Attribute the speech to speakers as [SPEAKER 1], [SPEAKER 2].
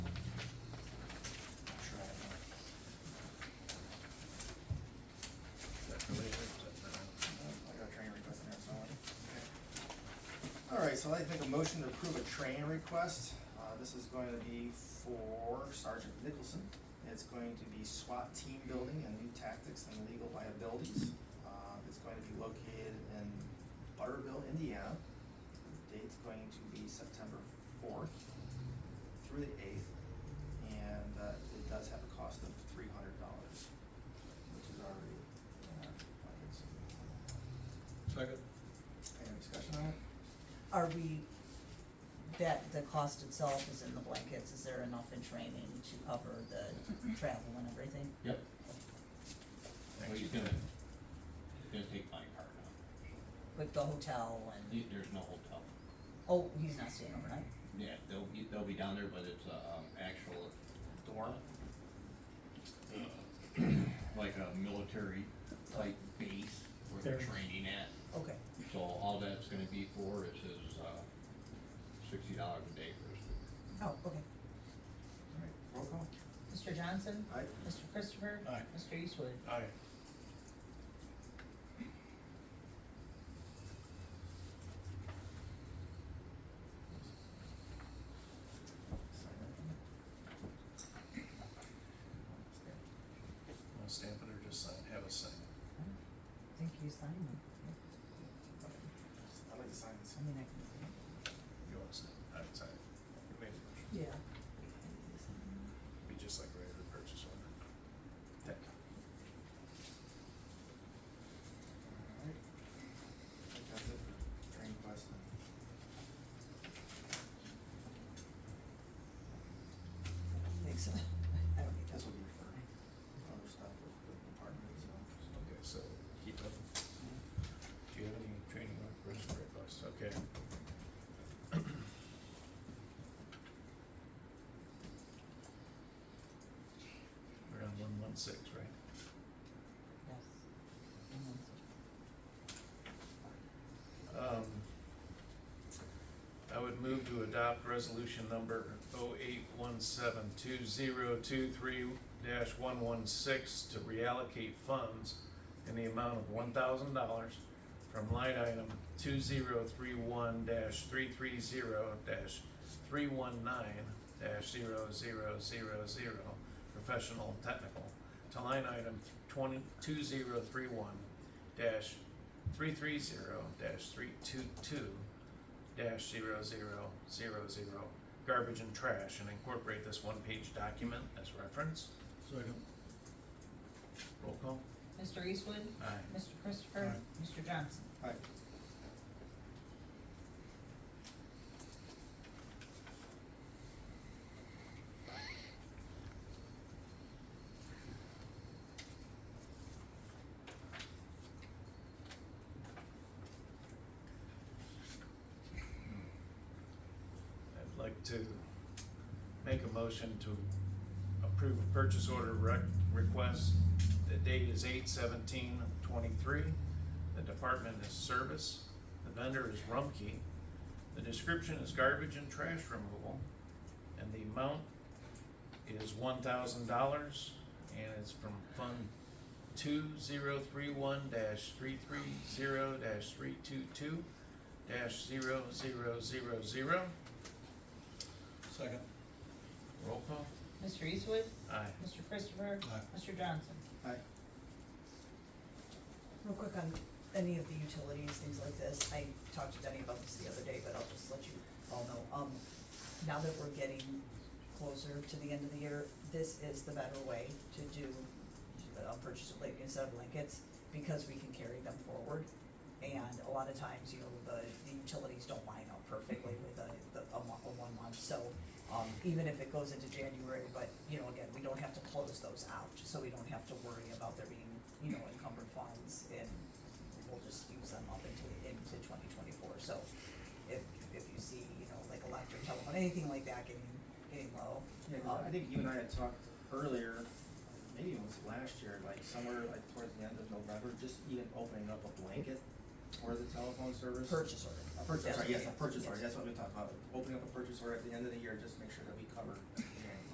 [SPEAKER 1] Oh, so I'd like to make a motion to approve a training request. Uh, this is going to be for Sergeant Nicholson. It's going to be SWAT team building and new tactics and legal liabilities. Uh, it's going to be located in Butterville, Indiana. The Date's going to be September fourth through the eighth. And, uh, it does have a cost of three hundred dollars, which is already in our budgets.
[SPEAKER 2] Second.
[SPEAKER 1] Any discussion on it?
[SPEAKER 3] Are we, that, the cost itself is in the blankets, is there enough in training to cover the travel and everything?
[SPEAKER 4] Yep. Well, he's gonna, he's gonna take my car now.
[SPEAKER 3] With the hotel and,
[SPEAKER 4] He- There's no hotel.
[SPEAKER 3] oh, he's not staying overnight?
[SPEAKER 4] Yeah, they'll be, they'll be down there, but it's a, um, actual dorm. Uh, Like a military type base where they're
[SPEAKER 5] There.
[SPEAKER 4] training at.
[SPEAKER 3] Okay,
[SPEAKER 4] So all that's gonna be for is his, uh, sixty dollars a day for his food.
[SPEAKER 3] oh, okay.
[SPEAKER 1] All right, roll call.
[SPEAKER 3] Mr. Johnson?
[SPEAKER 1] Aye.
[SPEAKER 3] Mr. Christopher?
[SPEAKER 2] Aye.
[SPEAKER 3] Mr. Eastwood?
[SPEAKER 2] Aye.
[SPEAKER 1] Sign that.
[SPEAKER 2] I'll stamp it or just sign, have us sign it.
[SPEAKER 3] I think you signed them.
[SPEAKER 1] I'd like to sign this.
[SPEAKER 3] I mean, I can.
[SPEAKER 2] You want to sign it? I would sign it. You made the motion.
[SPEAKER 3] Yeah.
[SPEAKER 2] Be just like regular purchase order.
[SPEAKER 1] Thank you. All right. I think that's it for training request.
[SPEAKER 3] Thanks. I don't need that.
[SPEAKER 1] This will be for other stuff with the department, so.
[SPEAKER 2] Okay, so keep up. Do you have any training or purchase requests? Okay. We're on one one six, right?
[SPEAKER 3] Yes. And then-
[SPEAKER 2] Um, I would move to adopt resolution number oh eight one seven two zero two three dash one one six to reallocate funds in the amount of one thousand dollars from line item two zero three one dash three three zero dash three one nine dash zero zero zero zero professional and technical to line item twenty, two zero three one dash three three zero dash three two two dash zero zero zero zero garbage and trash and incorporate this one-page document as reference.
[SPEAKER 5] Second.
[SPEAKER 2] Roll call.
[SPEAKER 3] Mr. Eastwood?
[SPEAKER 2] Aye.
[SPEAKER 3] Mr. Christopher? Mr. Johnson?
[SPEAKER 1] All right.
[SPEAKER 2] I'd like to make a motion to approve a purchase order rec- request. The date is eight seventeen twenty-three. The department is service. The vendor is Rumkey. The description is garbage and trash removal. And the amount is one thousand dollars and it's from Fund two zero three one three three zero three two two 0
[SPEAKER 5] Second.
[SPEAKER 2] Roll call.
[SPEAKER 3] Mr. Eastwood?
[SPEAKER 2] Aye.
[SPEAKER 3] Mr. Christopher?
[SPEAKER 5] Aye.
[SPEAKER 3] Mr. Johnson?
[SPEAKER 1] All right.
[SPEAKER 3] Real quick on any of the utilities, things like this, I talked to Denny about this the other day, but I'll just let you all know. Um, now that we're getting closer to the end of the year, this is the better way to do, uh, purchase of like instead of blankets, because we can carry them forward. And a lot of times, you know, the, the utilities don't line up perfectly with a, the, a mo- a one month, so, um, even if it goes into January, but, you know, again, we don't have to close those out, so we don't have to worry about there being, you know, encumbered funds, and we'll just use them up into, into twenty twenty-four, so if, if you see, you know, like electric, telephone, anything like that getting, getting low. um,
[SPEAKER 1] Yeah, 'cause I think you and I had talked earlier, maybe it was last year, like somewhere like towards the end of November, just even opening up a blanket for the telephone service.
[SPEAKER 3] Purchase order.
[SPEAKER 1] A purchase
[SPEAKER 3] That's
[SPEAKER 1] order,
[SPEAKER 3] what
[SPEAKER 1] yes, a
[SPEAKER 3] it is.
[SPEAKER 1] purchase order,
[SPEAKER 3] Yes.
[SPEAKER 1] that's what we talked about, opening up a purchase order at the end of the year, just make sure that we cover